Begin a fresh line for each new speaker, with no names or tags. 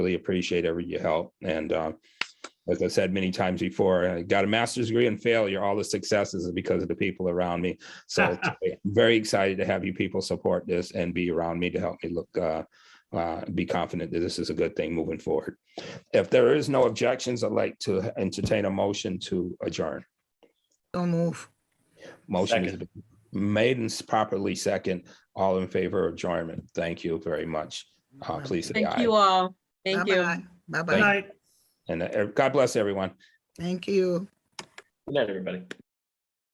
really appreciate every your help. And uh, as I said many times before, I got a master's degree in failure. All the successes are because of the people around me. So I'm very excited to have you people support this and be around me to help me look. Uh, uh, be confident that this is a good thing moving forward. If there is no objections, I'd like to entertain a motion to adjourn.
So move.
Motion is made and properly second. All in favor of adjournment. Thank you very much. Uh, please say
Thank
aye.
you all. Thank you.
Bye-bye.
Thank
Bye-bye.
you. And uh, God bless everyone.
Thank you.
Good night, everybody.